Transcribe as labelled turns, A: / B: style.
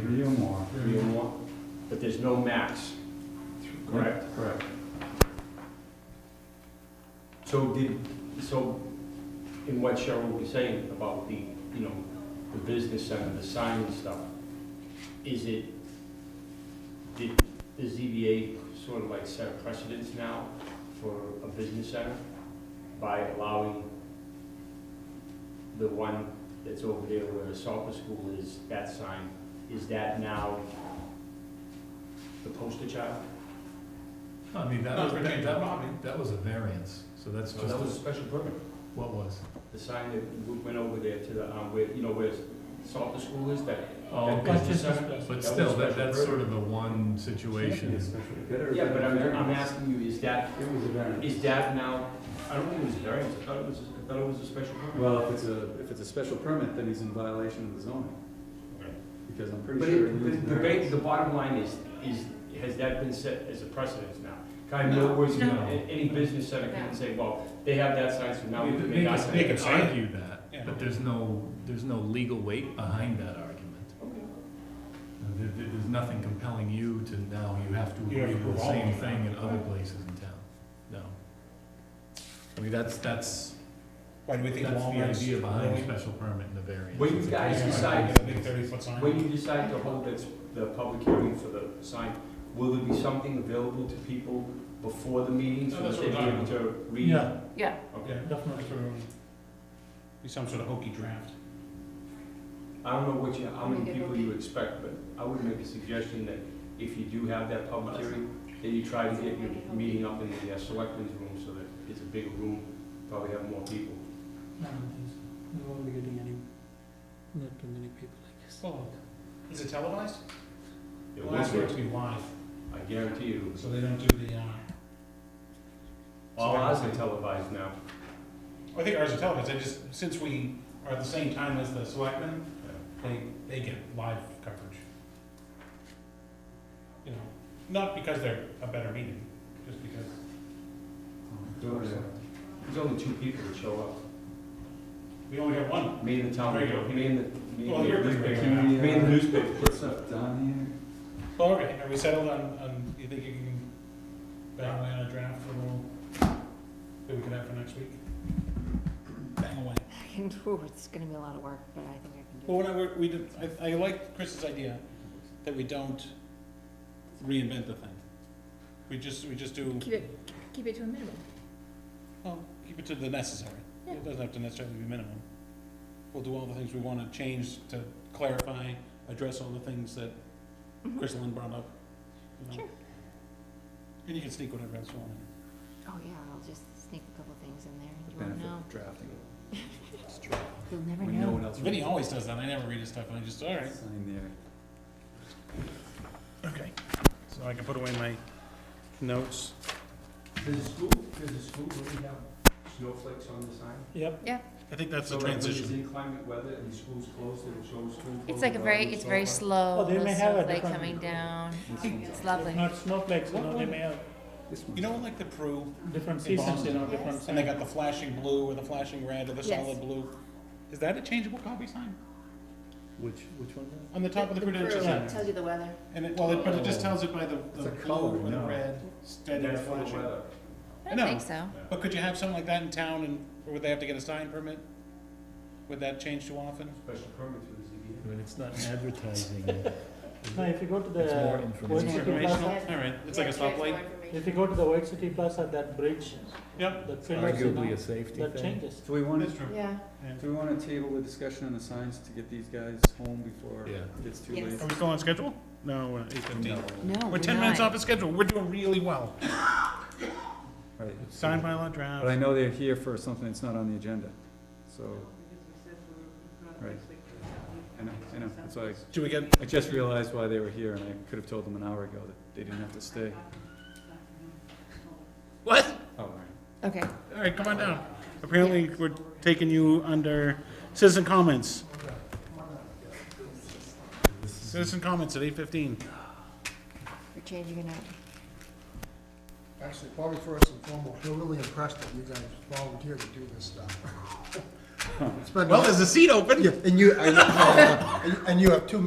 A: three or more, but there's no max, correct?
B: Correct.
A: So did, so in what Cheryl was saying about the, you know, the business center, the sign and stuff, is it, did the ZBA sort of like set a precedence now for a business center by allowing the one that's over there where the Salter School is, that sign, is that now the poster child?
C: No, I mean, that
B: No,
C: was,
B: we're
C: that,
B: changing the lobby.
C: that, that was a variance, so that's
A: So
C: just,
A: Oh, that was a special permit.
C: what was?
A: The sign that w- went over there to the, um, where, you know, where Salter School is, that
C: Oh,
A: That
C: okay.
A: business center? That
C: But
A: was
C: still,
A: special
C: that, that's
A: permit.
C: sort of the one situation.
A: Yeah, but I'm, I'm asking you, is that,
B: It was a variance.
A: is that now, I don't think it was a variance, I thought it was, I thought it was a special permit.
B: Well, if it's a, if it's a special permit, then he's in violation of the zoning, because I'm pretty
A: But
B: sure. it
A: it,
B: was
A: but
B: a
A: the ba-
B: variance.
A: the bottom line is, is, has that been set as a precedence now? Kind
B: No.
A: of, whereas
C: No.
A: any business center can say, well, they have that sign, so now
C: They
A: we
C: could-
A: can
C: they
A: make our
C: could- they
A: sign.
C: could argue that,
B: Yeah.
C: but there's no, there's no legal weight behind that argument. Uh, There, there- there's nothing compelling you to now, you have to
D: You have
C: agree to
D: to
C: the
D: prove all
C: same
D: of that.
C: thing in other places in town, no. I mean, that's, that's,
D: Why do we
C: that's
D: think
C: the
D: Walmart's?
C: idea behind a
D: really-
C: special permit and a variance.
A: When you
C: It's a
A: guys
C: case by
A: decide-
C: case
D: Get a big thirty foot sign?
A: When you decide to hold this, the public hearing for the sign, will there be something available to people before the meeting, so
D: No, that's
A: that they be
D: what I'm
A: able to read?
C: Yeah,
E: Yeah,
A: Okay.
D: Yeah,
C: definitely.
D: for- Be some sort of hokey draft.
A: I don't know what you, how many
E: Make it
A: people
E: okay.
A: you expect, but I would make a suggestion that if you do have that public hearing, that you try to get your meeting up in the uh, selectmen's room so that it's a bigger room, probably have more people.
F: I don't think so. We won't be getting any, not too many people, I guess.
D: Well, Is it televised?
A: It
D: Well, that's
A: won't work.
D: to be live,
A: I guarantee you,
D: so they don't do the, uh,
A: all ours are televised now.
D: I think ours are televised, I just, since we are at the same time as the selectmen, they, they get live coverage. You know, not because they're a better meeting, just because.
B: Oh, yeah.
A: There's only two people that show up,
D: We only got one.
A: me and the town, me
D: Regular.
A: and the, me and the
D: Well, you're
A: newspaper,
D: regular now.
A: me and the newspaper.
B: uh, Put stuff down
D: Well, okay, are we settled on, on, you think you can bang away on a draft for a little, that we can have for next week? Bang away.
E: I can do it. It's gonna be a lot of work, but I think I
D: Well,
E: can do
D: what I, what we did, I, I like Chris's idea that we don't reinvent the thing. We just, we just do,
E: it. Keep it, keep it to a minimum.
D: well, keep it to the necessary.
E: Yeah.
D: It doesn't have to necessarily be minimum. We'll do all the things we wanna change to clarify, address all the things that
E: Mhm.
D: Chris Lynn brought up. you know.
E: Sure.
D: And you can sneak whatever else you want in.
E: Oh, yeah, I'll just sneak a couple things in there.
B: here. The
E: You won't
B: benefit
E: know.
B: of drafting. It's true.
E: You'll never
B: When no
E: know.
B: one else.
D: Vinny
B: reads
D: always does that, I never read his stuff, and I just, all
B: it.
D: right.
B: Sign there.
D: Okay. So I can put away my notes.
A: Does the school, does the school really have snowflakes on the sign?
D: Yep.
E: Yeah.
D: I think that's
A: So
D: the
A: like when it's
D: transition.
A: inclement weather and the school's closed, it'll show school closed.
E: It's like a very,
A: around
E: it's very
A: snowflake.
E: slow,
F: Oh, they
E: little
F: may have a
E: snowflake
F: different-
E: coming down.
B: This one's
E: It's lovely.
F: Not snowflakes, you
D: What
F: know, they
D: one?
F: may have
B: This
D: You
B: one.
D: know, like the Prue,
F: different
D: In
F: seasons, you
D: Boston.
F: know, different.
D: and they got the flashing blue or the flashing red or the
E: Yes.
D: solid blue. Is that a changeable copy sign?
F: Which, which one? is
D: On the top of the credential
F: Yeah.
D: sign?
E: Tells you the weather.
D: And it, well, it- but it just tells it by the,
B: It's
D: the
B: a color,
D: blue or the
B: no.
D: red,
A: And
D: steady
A: that's for the
D: flashing.
A: weather.
E: I
D: I
E: don't
D: know.
E: think so.
D: But could you have something like that in town and, or would they have to get a sign permit? Would that change too often?
A: Special permit through the ZBA.
C: I mean, it's not advertising. is
F: it? No,
C: it?
F: if you go to
C: It's more
F: the
C: information.
F: White
D: It's
E: Yeah.
F: City
D: informational,
F: Plaza,
E: Yeah.
D: alright, it's like a stoplight.
F: if you go to the White City Plaza, that bridge,
D: Yep.
F: that filters, you
C: Arguably
F: know,
C: a safety
F: that
C: thing.
F: changes.
B: Do we want to,
D: That's true.
E: Yeah.
B: do we want to table the discussion on the signs to get these guys home before
C: Yeah.
B: it gets too
E: Yes.
B: late?
D: Are we still on schedule? No, we're eight fifteen.
E: No,
D: We're ten minutes off of schedule, we're doing really well.
B: Right.
D: Sign by law
B: But I
D: draft.
B: know they're here for something that's not on the agenda, so. Right. I know, I know, that's why,
D: Do we get,
B: I- I just realized why they were here, and I could have told them an hour ago that they didn't have to stay.
D: what?
B: Oh, all right.
E: Okay.
D: All right, come on down. Apparently, we're taking you under citizen comments. Citizen comments at eight fifteen.
E: We're changing it up.
G: Actually, probably first and foremost, we're really impressed that you guys volunteered to do this stuff. It's been-
D: Well, there's a seat open.
G: Yeah, And you, I know- and you have two